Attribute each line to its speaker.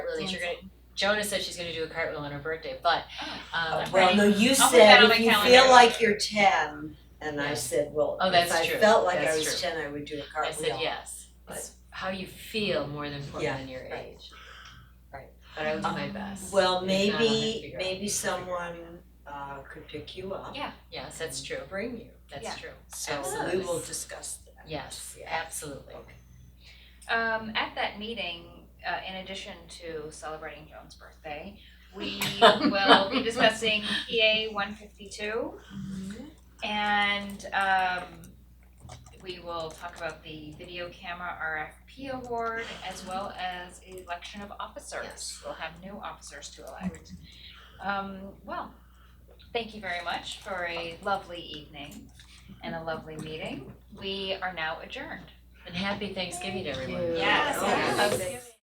Speaker 1: release. You're gonna Jonah said she's gonna do a cartwheel on her birthday, but um,
Speaker 2: Okay.
Speaker 3: Well, no, you
Speaker 2: I'll put that on
Speaker 3: said if
Speaker 2: my
Speaker 3: you
Speaker 2: calendar.
Speaker 3: feel like you're ten, and I
Speaker 1: Yeah.
Speaker 3: said, well,
Speaker 1: Oh,
Speaker 3: if
Speaker 1: that's
Speaker 3: I
Speaker 1: true.
Speaker 3: felt like I
Speaker 1: That's
Speaker 3: was
Speaker 1: true.
Speaker 3: ten, I would do a
Speaker 1: I
Speaker 3: cartwheel.
Speaker 1: said yes.
Speaker 3: But-
Speaker 1: It's how you feel more than important
Speaker 3: Yeah,
Speaker 1: than your
Speaker 3: right.
Speaker 1: age.
Speaker 3: Right.
Speaker 1: But I will do my
Speaker 3: Um,
Speaker 1: best.
Speaker 3: Well,
Speaker 1: If not, I'll have to
Speaker 3: maybe,
Speaker 1: figure out.
Speaker 3: maybe someone uh could pick you up,
Speaker 1: Yes, that's true.
Speaker 3: bring you,
Speaker 1: That's
Speaker 2: Yeah.
Speaker 1: true.
Speaker 3: so we
Speaker 1: Absolutely.
Speaker 3: will discuss that.
Speaker 1: Yes,
Speaker 3: Yeah.
Speaker 1: absolutely.
Speaker 2: Um, at that meeting, uh, in addition to celebrating Joan's birthday, we will be discussing PA one fifty-two. And, um, we will talk about the video camera RFP award as well as election of officers.
Speaker 1: Yes.
Speaker 2: We'll have new officers to elect. Um, well, thank you very much for a lovely evening and a lovely meeting. We are now adjourned.
Speaker 3: Oh,
Speaker 1: And happy Thanksgiving, everyone.
Speaker 2: Yes.
Speaker 3: Yes.
Speaker 2: Yes.